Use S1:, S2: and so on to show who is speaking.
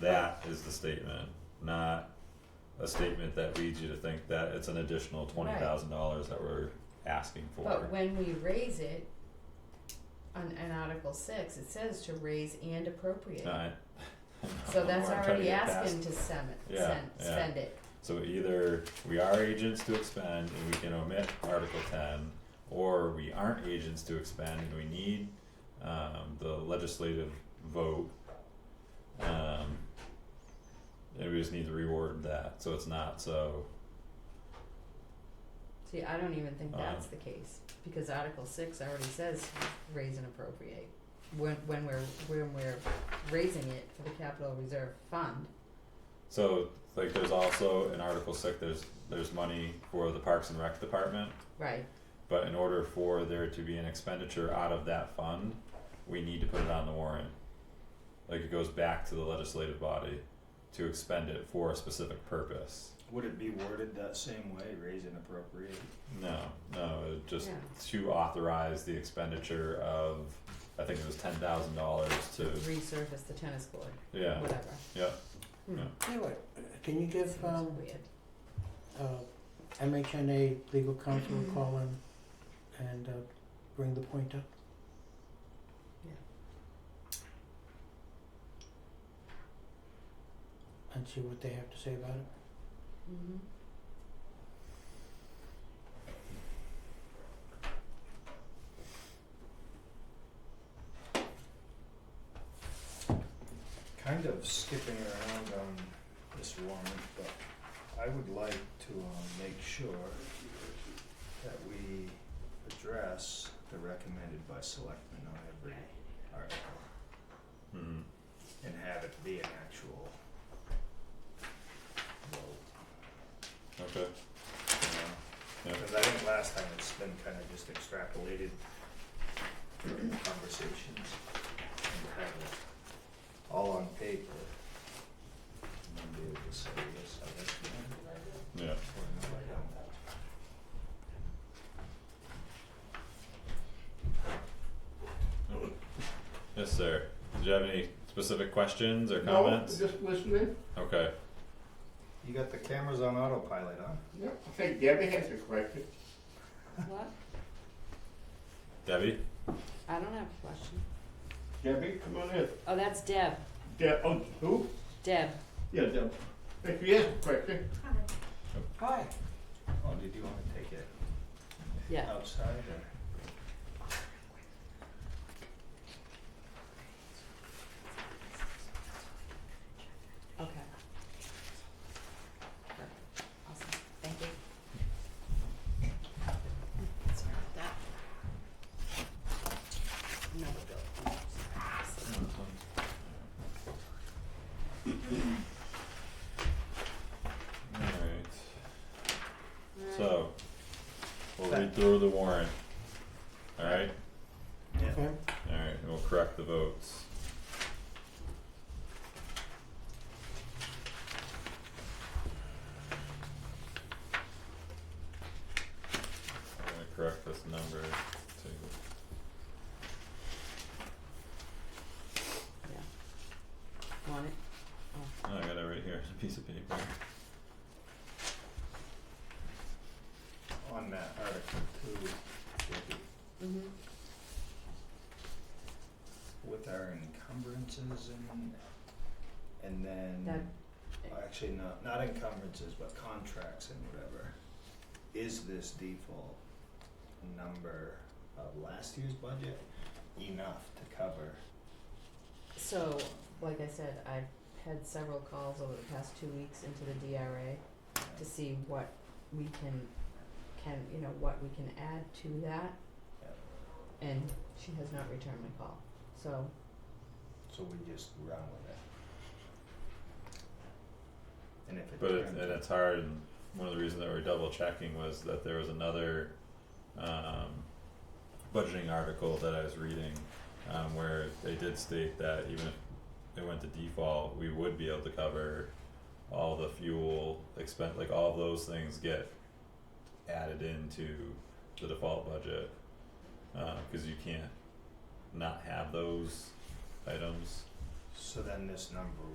S1: That is the statement, not a statement that leads you to think that it's an additional twenty thousand dollars that we're asking for.
S2: But when we raise it on, on Article six, it says to raise and appropriate.
S1: Alright.
S2: So that's
S1: Uh, I'm trying to
S2: already
S1: get past-
S2: asking to sem-
S1: Yeah,
S2: sen-
S1: yeah.
S2: spend it.
S1: So either we are agents to expend and we can omit Article ten, or we aren't agents to expend and we need um the legislative vote. Um and we just need to reward that, so it's not so,
S2: See, I don't even think
S1: Uh.
S2: that's the case, because Article six already says raise and appropriate. When, when we're, when we're raising it for the capital reserve fund,
S1: so like there's also in Article six, there's there's money for the Parks and Rec Department.
S2: right,
S1: But in order for there to be an expenditure out of that fund, we need to put it on the warrant. Like it goes back to the legislative body to expend it for a specific purpose.
S3: Would it be worded that same way, raise and appropriate?
S1: No, no, it just
S2: Yeah.
S1: to authorize the expenditure of, I think it was ten thousand dollars to,
S2: resurface the tennis court,
S1: yeah,
S2: whatever.
S1: yeah.
S2: Hmm.
S1: Yeah.
S4: Anyway, can you give,
S2: Seems
S4: um,
S2: weird.
S4: uh, MHNA legal counsel a call in and, uh, bring the point up?
S2: Yeah.
S4: And see what they have to say about it?
S2: Mhm.
S3: Kind of skipping around on this warrant, but I would like to um, make sure that we address the recommended by selectmen on every article
S1: Mhm.
S3: and have it be an actual vote,
S1: okay,
S3: you know?
S1: yeah,
S3: Because I think last time it's been kind of just extrapolated conversations and have it all on paper. And then be able to say, yes, I recommend,
S1: yeah,
S3: or no, I don't.
S1: yes, sir. Did you have any specific questions or
S5: No,
S1: comments?
S5: Just listening.
S1: Okay,
S3: You got the cameras on autopilot, huh?
S5: Yeah. I think Debbie has a question.
S2: What?
S1: Debbie,
S2: I don't have a question.
S5: Debbie, come on in.
S2: Oh, that's Deb,
S5: Deb, oh, who?
S2: Deb.
S5: Yeah, Deb. If she has a question,
S4: Hi.
S3: Oh, did you wanna take it
S2: Yeah.
S3: outside or?
S2: Okay. Perfect. Awesome. Thank you. Sorry about that. No, we'll go.
S1: alright. So, we'll read through the warrant. Alright,
S3: Yeah.
S4: Okay,
S1: alright, and we'll correct the votes. I'm gonna correct this number to,
S2: Yeah. Want it?
S1: oh, I got it right here, it's a piece of paper.
S3: On that article two, Debbie,
S2: Mm-hmm.
S3: with our encumbrances and, and then.
S2: That-
S3: Well, Actually, not, not encumbrances, but contracts and whatever. Is this default number of last year's budget enough to cover?
S2: So, like I said, I've had several calls over the past two weeks into the DRA to see what we can, can, you know, what we can add to that. And she has not returned my call, so,
S3: So we just run with it. And if it
S1: But it,
S3: turns.
S1: and it's hard, and one of the reasons that we're double checking was that there was another, um, budgeting article that I was reading, um, where they did state that even if it went to default, we would be able to cover all the fuel expense, like all those things get added into the default budget. Uh, cause you can't not have those items.
S3: So then this number